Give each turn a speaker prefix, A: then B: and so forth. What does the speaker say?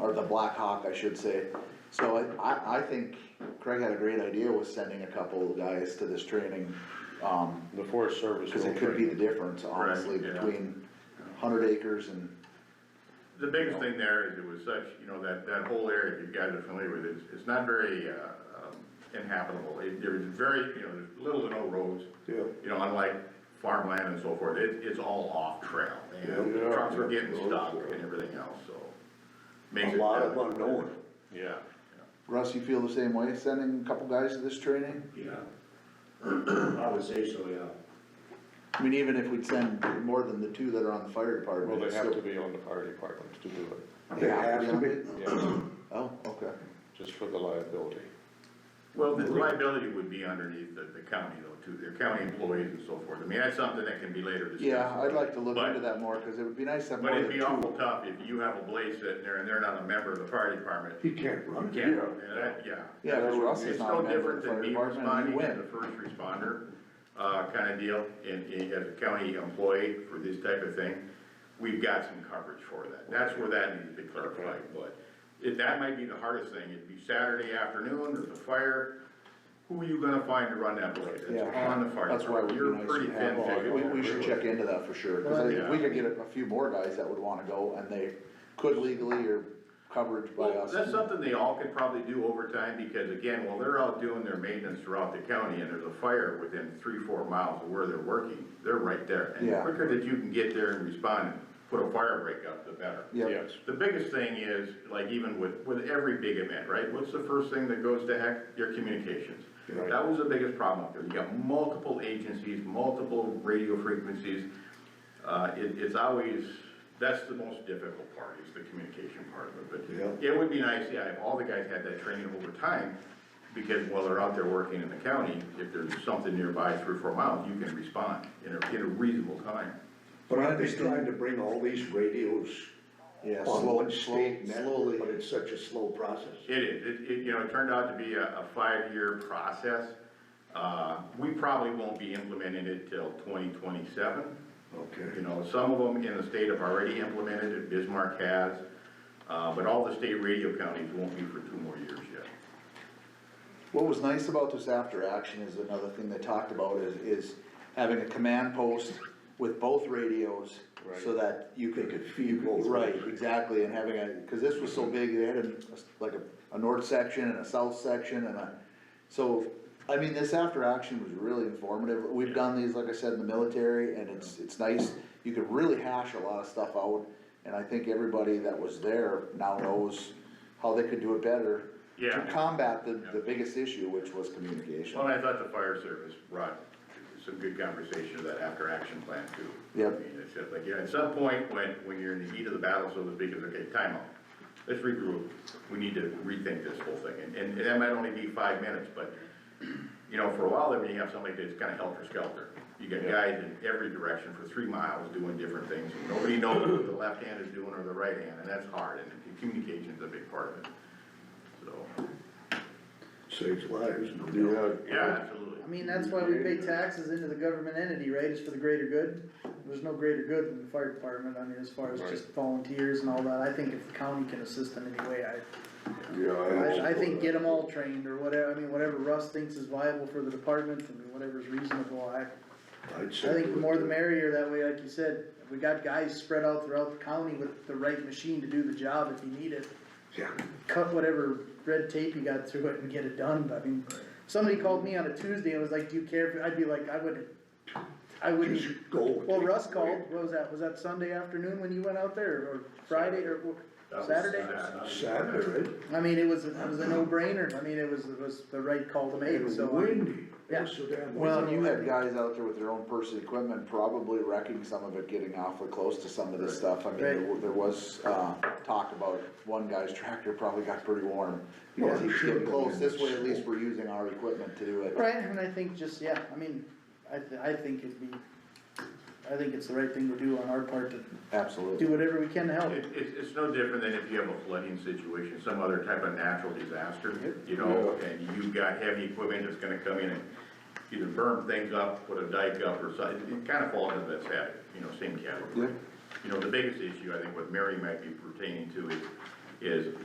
A: or the Black Hawk, I should say. So I- I, I think Craig had a great idea with sending a couple of guys to this training, um,
B: The Forest Service.
A: cause it could be the difference, honestly,
C: Right, yeah.
A: between hundred acres and,
C: The biggest thing there is it was such, you know, that, that whole area, if you guys are familiar with it, it's- it's not very, uh, um, inhabitable. It, there is very, you know, there's little to no roads.
D: Yeah.
C: You know, unlike farmland and so forth, it, it's all off trail, and
D: Yeah.
C: trucks were getting
D: Yeah.
C: stuck and everything else, so. makes
D: A
C: it
D: lot of
C: better.
D: unknown.
B: Yeah,
A: Russ, you feel the same way, sending a couple guys to this training?
E: Yeah. I would say so, yeah.
A: I mean, even if we'd send more than the two that are on the fire
B: well,
A: department.
B: they
A: it's
B: have to
A: still-
B: be on the fire departments to do it,
D: They have to be.
B: yeah,
A: Oh, okay.
B: just for the liability.
C: Well, the liability would be underneath the, the county though, too, their county employees and so forth. I mean, that's something that can be later discussed.
A: Yeah, I'd like to look
C: But-
A: into that more, cause it would be nice to have
C: But
A: more
C: it'd
A: than
C: be
A: two.
C: awful tough if you have a blaze sitting there and they're not a member of the fire department.
D: He can't run it.
C: Yeah, and that, yeah.
A: Yeah, because Russ is
C: It's
A: not
C: no
A: a member of
C: different
A: the fire
C: than me
A: department, and you
C: responding as
A: win.
C: a first responder, uh, kinda deal, and, and as a county employee for this type of thing, we've got some coverage for that, that's where that needs to be clarified, but it, that might be the hardest thing, it'd be Saturday afternoon, there's a fire, who are you gonna find to run that blade? It's
A: Yeah,
C: on the fire
A: That's why it
C: department, you're
A: would
C: pretty
A: be nice to
C: thin
A: have, we,
C: pickings.
A: we should check into that for sure, cause I think if we
C: Yeah.
A: could get a a few more guys that would wanna go, and they could legally or covered by
C: Well,
A: us.
C: that's something they all could probably do over time, because again, while they're out doing their maintenance throughout the county, and there's a fire within three, four miles of where they're working, they're right there. And the
A: Yeah.
C: quicker that you can get there and respond and put a fire break up, the better.
A: Yeah,
B: Yes,
C: The biggest thing is, like even with, with every big event, right, what's the first thing that goes to heck? Your communications.
B: Right.
C: That was the biggest problem up there, you got multiple agencies, multiple radio frequencies. Uh, it, it's always, that's the most difficult part, is the communication part of it, but it would be nice, yeah, if all the guys had that training over time, because while they're out there working in the county, if there's something nearby three, or four miles, you can respond in a, in a reasonable time.
D: But aren't they trying to bring all these radios
A: yeah,
D: on
A: slow,
D: one
A: slow,
D: state network,
A: slowly,
D: but it's such a slow process?
C: It is, it, it, you know, it turned out to be a, a five-year process. Uh, we probably won't be implementing it till twenty twenty-seven. You
D: Okay.
C: know, some of them in the state have already implemented it, Bismarck has, uh, but all the state radio counties won't be for two more years yet.
A: What was nice about this after action is another thing they talked about is, is having a command post with both radios so that you could.
D: They could feed both.
A: Right, exactly, and having a, cause this was so big, they had a, like a, a north section and a south section and a, so, I mean, this after action was really informative. We've done these, like I said, in the military and it's, it's nice. You could really hash a lot of stuff out and I think everybody that was there now knows how they could do it better to
C: Yeah.
A: combat the, the biggest issue, which was communication.
C: Well, I thought the fire service brought some good conversation to that after-action plan too.
A: Yep.
C: I mean, it's just like, you know, at some point, when, when you're in the heat of the battle, so to speak, it's okay, timeout. Let's regroup, we need to rethink this whole thing, and, and that might only be five minutes, but, you know, for a while, there, when you have somebody that's kinda helter-skelter. You got guys in every direction for three miles doing different things, and nobody knows what the left hand is doing or the right hand, and that's hard, and communication's a big part of it, so,
D: Saves lives, no doubt.
B: yeah,
C: yeah, absolutely.
F: I mean, that's why we pay taxes into the government entity, right, is for the greater good, there's no greater good than the fire department, I mean, as far as just volunteers and all that, I think if the county can assist in any way, I,
D: Yeah,
F: I, I
D: also-
F: think get them all trained, or whatever, I mean, whatever Russ thinks is viable for the department, I mean, whatever's reasonable, I,
D: I'd
F: I
D: say
F: think the
D: do it
F: more the
D: too.
F: merrier, that way, like you said, if we got guys spread out throughout the county with the right machine to do the job if you need it,
D: Yeah,
F: cut whatever red tape you got through it and get it done, but I mean, somebody called me on a Tuesday and was like, do you care, if I'd be like, I wouldn't, I wouldn't.
D: just go. with
F: Well,
D: it.
F: Russ called, what was that, was that Sunday afternoon when you went out there, or Friday, or
C: That was
F: Saturday?
C: sad.
D: Saturday,
F: I mean, it was, it was a no-brainer, I mean, it was, it was the right call to
D: it
F: make,
D: was
F: so. um, I mean,
D: windy, it was so damn.
A: Well,
D: windy.
A: you had guys out there with their own personal equipment, probably wrecking some of it, getting awfully close to some of this stuff. I mean, there wa- there was, uh, talk about one guy's tractor probably got pretty warm. Because he was getting close, this way at least we're using our equipment to do it.
F: Right, and I think just, yeah, I mean, I, th- I think it'd be, I think it's the right thing to do on our part to do
A: Absolutely.
F: whatever we can to help.
C: It, it's, it's no different than if you have a flooding situation, some other type of natural disaster, you know, and you've got heavy equipment that's gonna come in and either burn things up, put a dike up or something, it kinda falls into that same, you know, same category.
A: Yeah.
C: You know, the biggest issue I think what Mary might be pertaining to is is